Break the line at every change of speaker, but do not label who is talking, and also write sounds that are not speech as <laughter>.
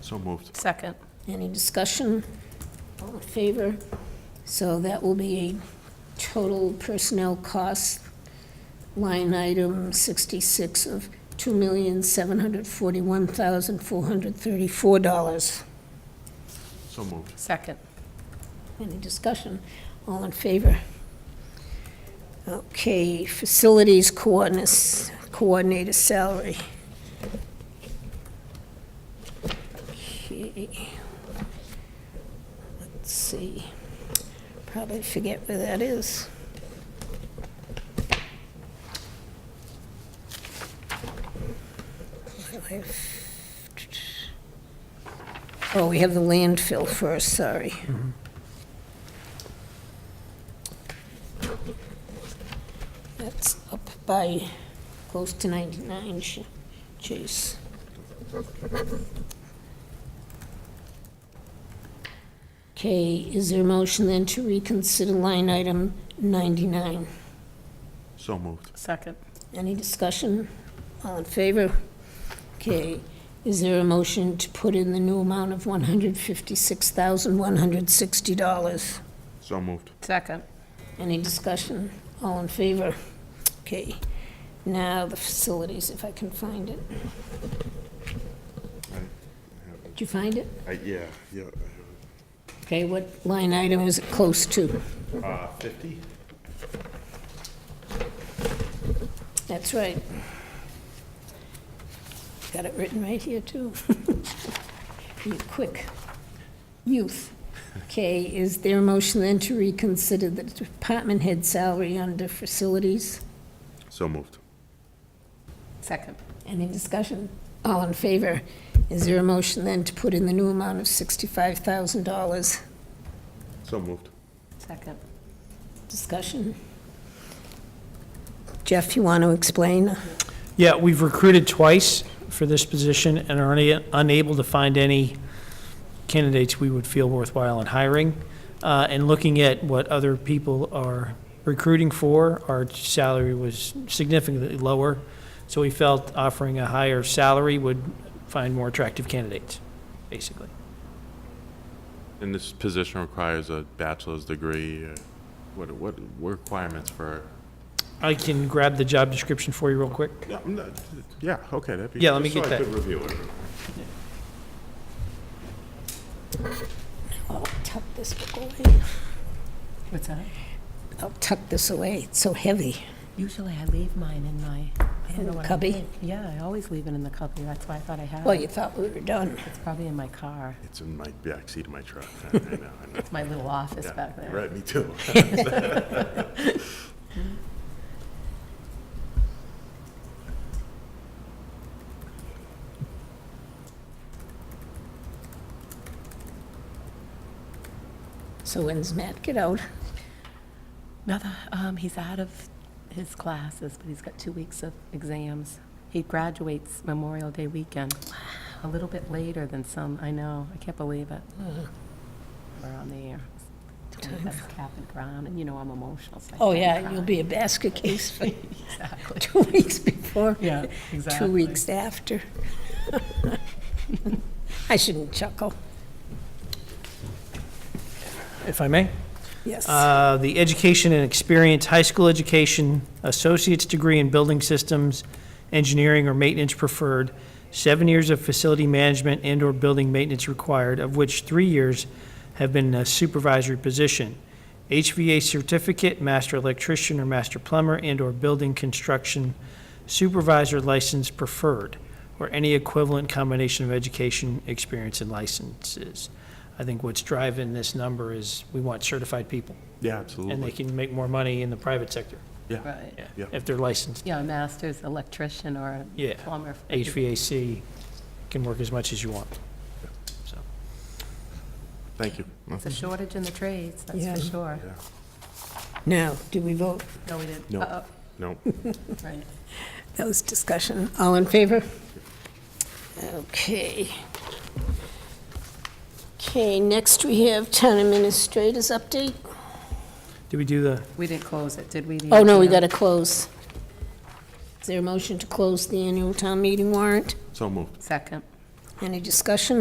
So moved.
Second.
Any discussion? All in favor? So that will be a total personnel cost line item 66 of $2,741,434.
So moved.
Second.
Any discussion? All in favor? Okay, facilities coordinates- coordinator salary. Okay. Let's see, probably forget where that is. Oh, we have the landfill first, sorry. That's up by close to 99 Ch- Chase. Okay, is there a motion then to reconsider line item 99?
So moved.
Second.
Any discussion? All in favor? Okay, is there a motion to put in the new amount of $156,160?
So moved.
Second.
Any discussion? All in favor? Okay. Now, the facilities, if I can find it.
I have it.
Did you find it?
I- Uh, Yeah, yeah.
Okay, what line item is it close to?
Uh, 50?
That's right. Got it written right here, too. <laughs> You quick. Youth. Okay, is there a motion then to reconsider the department head salary under facilities?
So moved.
Second.
Any discussion? All in favor? Is there a motion then to put in the new amount of $65,000?
So moved.
Second.
Discussion. Jeff, you want to explain?
Yeah, we've recruited twice for this position and are una- unable to find any candidates we would feel worthwhile in hiring. Uh, And looking at what other people are recruiting for, our salary was significantly lower, so we felt offering a higher salary would find more attractive candidates, basically.
And this position requires a bachelor's degree. uh, What, what requirements for?
I can grab the job description for you real quick.
Yeah, I'm not- Yeah, okay, that'd be.
Yeah, let me
just so I
get that.
could review it.
I'll tuck this book away.
What's that?
I'll tuck this away. It's so heavy.
Usually I leave mine in my, I
In
don't know
the
what I
cubby?
did. Yeah, I always leave it in the cubby. That's why I thought I had
Well,
it.
you thought we were done.
It's probably in my car.
It's in my backseat of my <laughs> truck. I I know, I know.
It's my little office
Yeah,
back there.
Right, me too.
So when's Matt get out?
Another, um, he's out of his classes, but he's got two weeks of exams. He graduates Memorial Day weekend. A little bit later than some, I know. I can't believe it. We're on the air. Totally, That's cap and ground, and you know I'm emotional. so I
Oh,
can't
yeah,
cry.
you'll be a <laughs> basket case
<laughs>
for
Exactly.
two weeks before,
<laughs> Yeah, exactly.
two weeks after. <laughs> I shouldn't chuckle.
If I may?
Yes.
Uh, The education and experience, high school education, associate's degree in building systems, engineering or maintenance preferred, seven years of facility management and/or building maintenance required, of which three years have been in a supervisory position. HVA certificate, master electrician or master plumber, and/or building construction supervisor license preferred, or any equivalent combination of education, experience, and licenses. I think what's driving this number is we want certified people,
<laughs> Yeah,
and they
absolutely.
can make more money in the private sector
Yeah,
Right.
Yeah.
if they're licensed.
Yeah, a master's electrician or a
Yeah.
plumber.
HVAC can work as much as you want. So,
thank you.
It's a shortage in the trades, that's
Yeah.
for sure.
Yeah.
Now, do we vote?
No, we didn't.
No.
Uh-oh,
No,
Right.
That was discussion. All in favor? Okay. Okay, next we have town administrators update.
do we do the,
We didn't close it, did we? the
Oh, no, we
ATM?
got to close. Is there a motion to close the annual town meeting warrant?
so moved.
Second.
Any discussion?